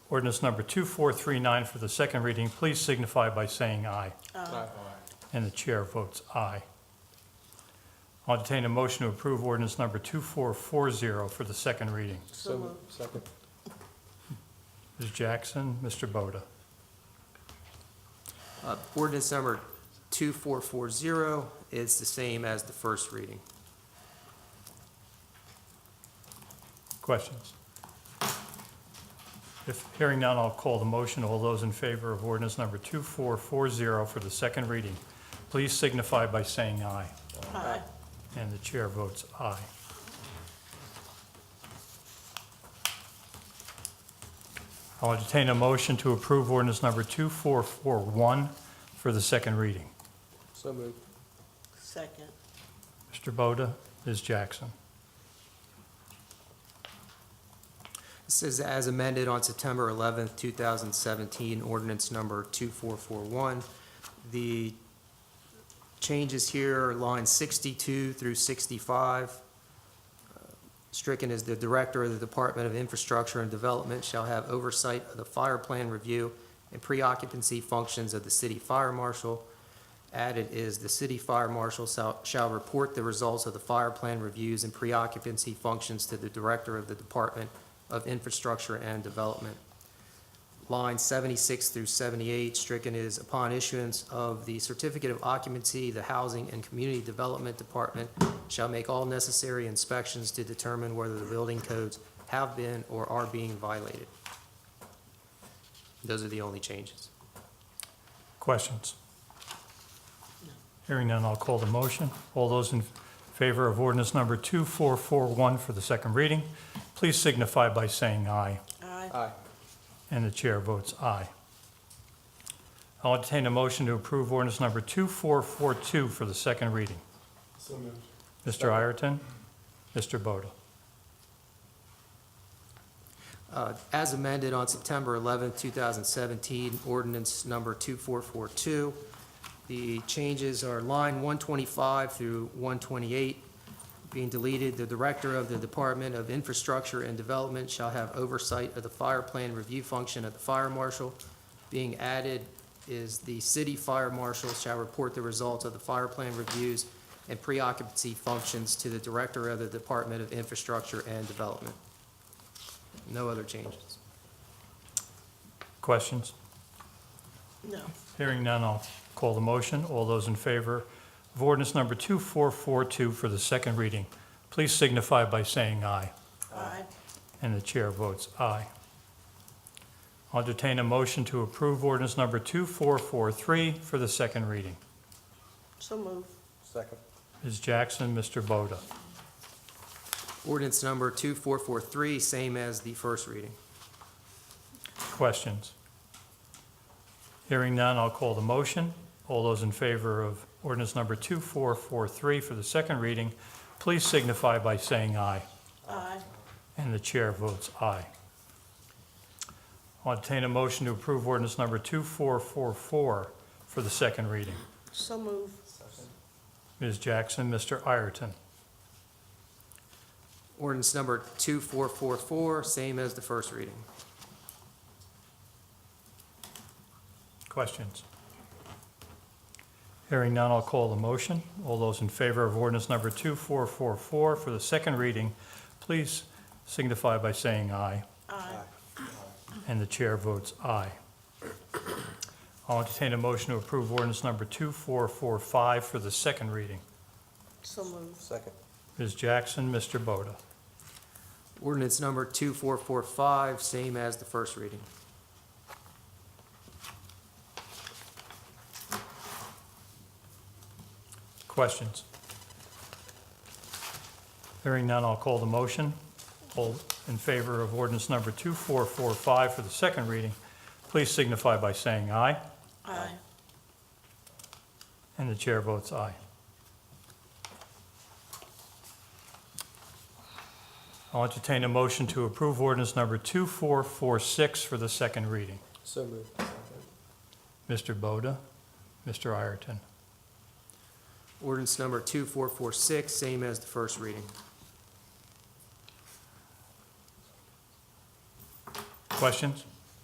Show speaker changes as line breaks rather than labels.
Ordinance number 2439 for the second reading, please signify by saying aye.
Aye.
And the chair votes aye. I'll entertain a motion to approve ordinance number 2440 for the second reading.
So moved. Second.
Ms. Jackson, Mr. Boda.
Uh, Ordinance number 2440 is the same as the first reading.
Questions? If hearing none, I'll call the motion. All those in favor of ordinance number 2440 for the second reading, please signify by saying aye.
Aye.
And the chair votes aye. I'll entertain a motion to approve ordinance number 2441 for the second reading.
So moved.
Second.
Mr. Boda, Ms. Jackson.
This is as amended on September 11th, 2017, ordinance number 2441. The changes here are lines 62 through 65. Stricken is the Director of the Department of Infrastructure and Development shall have oversight of the fire plan review and pre-occupancy functions of the city fire marshal. Added is the city fire marshal shall- shall report the results of the fire plan reviews and pre-occupancy functions to the Director of the Department of Infrastructure and Development. Line 76 through 78, stricken is upon issuance of the certificate of occupancy, the Housing and Community Development Department shall make all necessary inspections to determine whether the building codes have been or are being violated. Those are the only changes.
Questions? Hearing none, I'll call the motion. All those in favor of ordinance number 2441 for the second reading, please signify by saying aye.
Aye.
Aye.
And the chair votes aye. I'll entertain a motion to approve ordinance number 2442 for the second reading.
So moved.
Mr. Ireton, Mr. Boda.
Uh, As amended on September 11, 2017, ordinance number 2442. The changes are line 125 through 128 being deleted. The Director of the Department of Infrastructure and Development shall have oversight of the fire plan review function of the fire marshal. Being added is the city fire marshal shall report the results of the fire plan reviews and preoccupancy functions to the Director of the Department of Infrastructure and Development. No other changes.
Questions?
No.
Hearing none, I'll call the motion. All those in favor of ordinance number 2442 for the second reading, please signify by saying aye.
Aye.
And the chair votes aye. I'll entertain a motion to approve ordinance number 2443 for the second reading.
So moved.
Second.
Ms. Jackson, Mr. Boda.
Ordinance number 2443, same as the first reading.
Questions? Hearing none, I'll call the motion. All those in favor of ordinance number 2443 for the second reading, please signify by saying aye.
Aye.
And the chair votes aye. I'll entertain a motion to approve ordinance number 2444 for the second reading.
So moved.
Ms. Jackson, Mr. Ireton.
Ordinance number 2444, same as the first reading.
Questions? Hearing none, I'll call the motion. All those in favor of ordinance number 2444 for the second reading, please signify by saying aye.
Aye.
And the chair votes aye. I'll entertain a motion to approve ordinance number 2445 for the second reading.
So moved.
Second.
Ms. Jackson, Mr. Boda.
Ordinance number 2445, same as the first reading.
Questions? Hearing none, I'll call the motion. All in favor of ordinance number 2445 for the second reading, please signify by saying aye.
Aye.
And the chair votes aye. I'll entertain a motion to approve ordinance number 2446 for the second reading.
So moved.
Mr. Boda, Mr. Ireton.
Ordinance number 2446, same as the first reading.
Questions?